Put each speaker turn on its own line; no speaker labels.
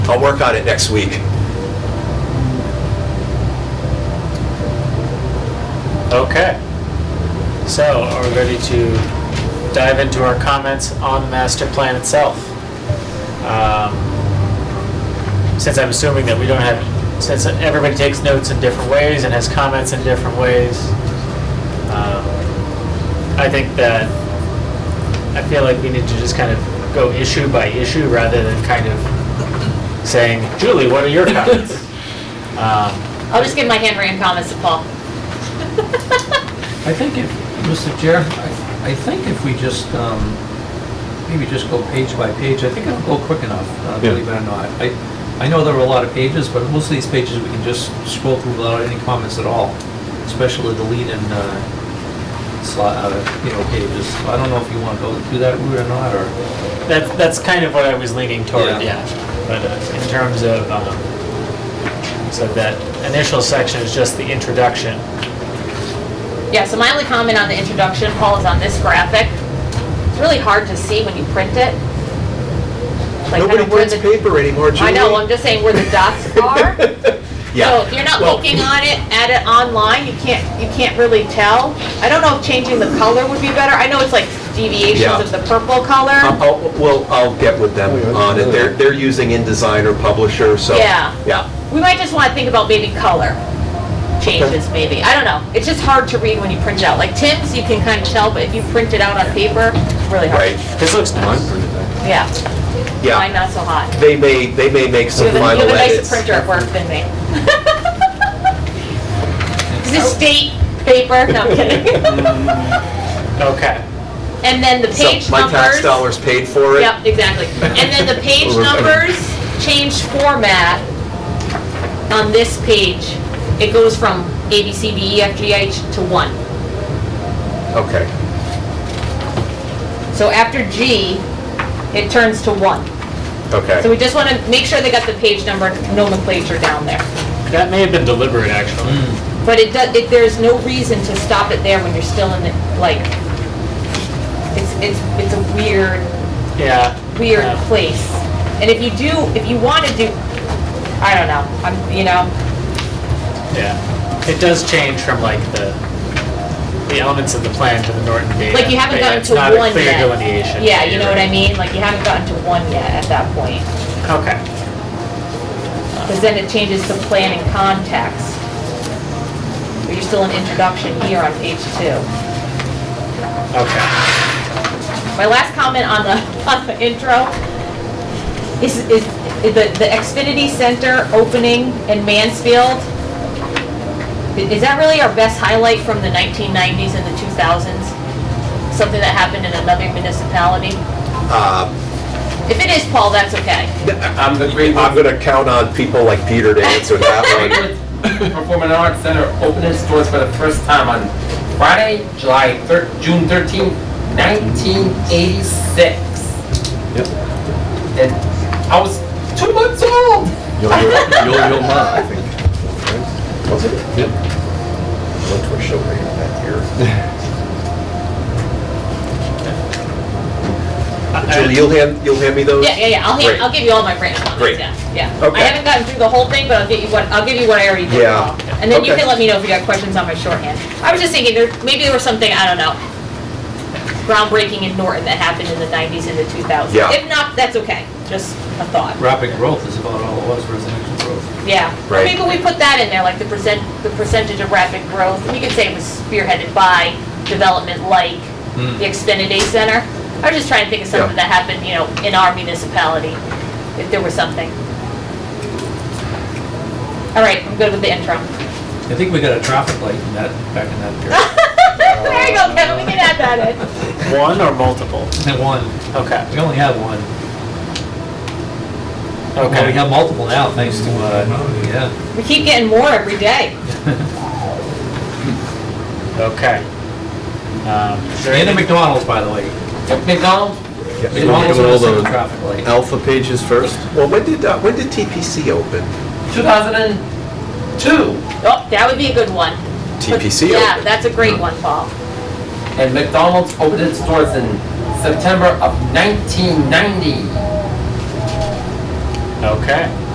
I'll work on it next week.
Okay. So are we ready to dive into our comments on the master plan itself? Um, Since I'm assuming that we don't have, since everybody takes notes in different ways and has comments in different ways, um, I think that, I feel like we need to just kind of go issue by issue rather than kind of saying, Julie, what are your comments? Um,
I'll just give my handwritten comments to Paul.
I think if, Mr. Chair, I I think if we just, um, maybe just go page by page, I think it'll go quick enough, uh, believe it or not. I, I know there are a lot of pages, but most of these pages we can just scroll through without any comments at all, especially the lead and, uh, slot, uh, you know, pages. So I don't know if you want to go through that route or not, or,
That's, that's kind of what I was leaning toward,
Yeah.
yeah. But uh, in terms of, um, so that initial section is just the introduction.
Yeah, so my only comment on the introduction, Paul, is on this graphic. It's really hard to see when you print it. Like kind
Nobody
of where
prints
the
paper anymore, Julie.
I know, I'm just saying where the dots are. So
Yeah.
if you're not
Well-
looking on it, at it online, you can't, you can't really tell. I don't know if changing the color would be better. I know it's like deviations
Yeah. Uh-huh.
of the purple color.
I'll- I'll- Well, I'll get with them on it. They're, they're using InDesign or Publisher, so.
Yeah.
Yeah.
We might just want to think about maybe color changes, maybe. I don't know. It's just hard to read when you print it out. Like Tim's, you can kind of tell, but if you print it out on paper, it's really hard.
Right.
This looks nice.
Yeah,
Yeah.
mine not so hot.
They may, they may make
You
some
have a- you
final
have a nicer
edits.
printer at work than me. Is this state paper? No, I'm kidding.
Okay.
And then the
So
page numbers.
My tax dollars paid for it.
Yep, exactly. And then the page
Or-
numbers change format on this page. It goes from A, B, C, D, E, F, G, H to 1.
Okay.
So after G, it turns to 1. So
Okay.
we just want to make sure they got the page number nomenclature down there.
That may have been deliberate, actually.
Hmm.
But it does, it, there's no reason to stop it there when you're still in the, like, it's, it's, it's a weird,
Yeah. Uh,
weird
yeah.
place. And if you do, if you want to do, I don't know, I'm, you know,
Yeah. It does change from like the, the elements of the plan to the Norton data.
like you haven't
but yeah,
gotten
it's
to one
not
yet.
a clear delineation.
Yeah, you know what I
Right.
mean? Like you haven't gotten to one yet at that point.
Okay.
Because then it changes to plan and context. But you're still in introduction here on page two.
Okay.
My last comment on the, on the intro is, is the, the Xfinity Center opening in Mansfield. I- Is that really our best highlight from the 1990s and the 2000s? Something that happened in another municipality?
Uh,
If it is, Paul, that's okay.
I'm, I'm gonna count on people like Peter to answer that one.
Performing Arts Center opened its doors for the first time on Friday, July thir- June 13, 1986.
Yep.
And I was two months old.
Yo Yo Yo Yo Ma, I think.
Was it?
Yep.
Went to a show later that year.
Uh,
Julie, you'll hand, you'll hand me those?
Yeah, yeah, yeah, I'll, hand-
Great.
I'll give you all my branch
Great.
comments, yeah, yeah. I
Okay.
haven't gotten through the whole thing, but I'll get you what, I'll give you what I already did.
Yeah.
Paul. And then you
Okay.
can let me know if you got questions on my shorthand. I was just thinking, there, maybe there was something, I don't know, groundbreaking in Norton that happened in the nineties and the two thousands.
Yeah.
If not, that's okay, just a thought,
rapid growth is about all it was, residential growth.
yeah. Or
Right.
Maybe we put that in there, like the percent, the percentage of rapid growth, we could say it was spearheaded by development like
Hmm.
the Xfinity Center. I was just trying to think of something that happened, you know, in our municipality, if there was something. All right, I'm good with the intro.
I think we got a traffic light in that, back in that period.
There you go, Kevin, we can add that in.
One or multiple?
And one,
Okay.
we only have one. Well, we
Okay.
have multiple now, thanks to, uh, yeah.
We keep getting more every day.
Okay. Um, is there
And a
anything-
McDonald's, by the way.
McDonald's,
We're doing
McDonald's
all
was a
the
traffic light.
alpha pages first.
Well, when did, uh, when did TPC open?
2002.
Oh, that would be a good one.
TPC
Yeah,
opened.
that's a great one, Paul.
And McDonald's opened its doors in September of 1990.
Okay.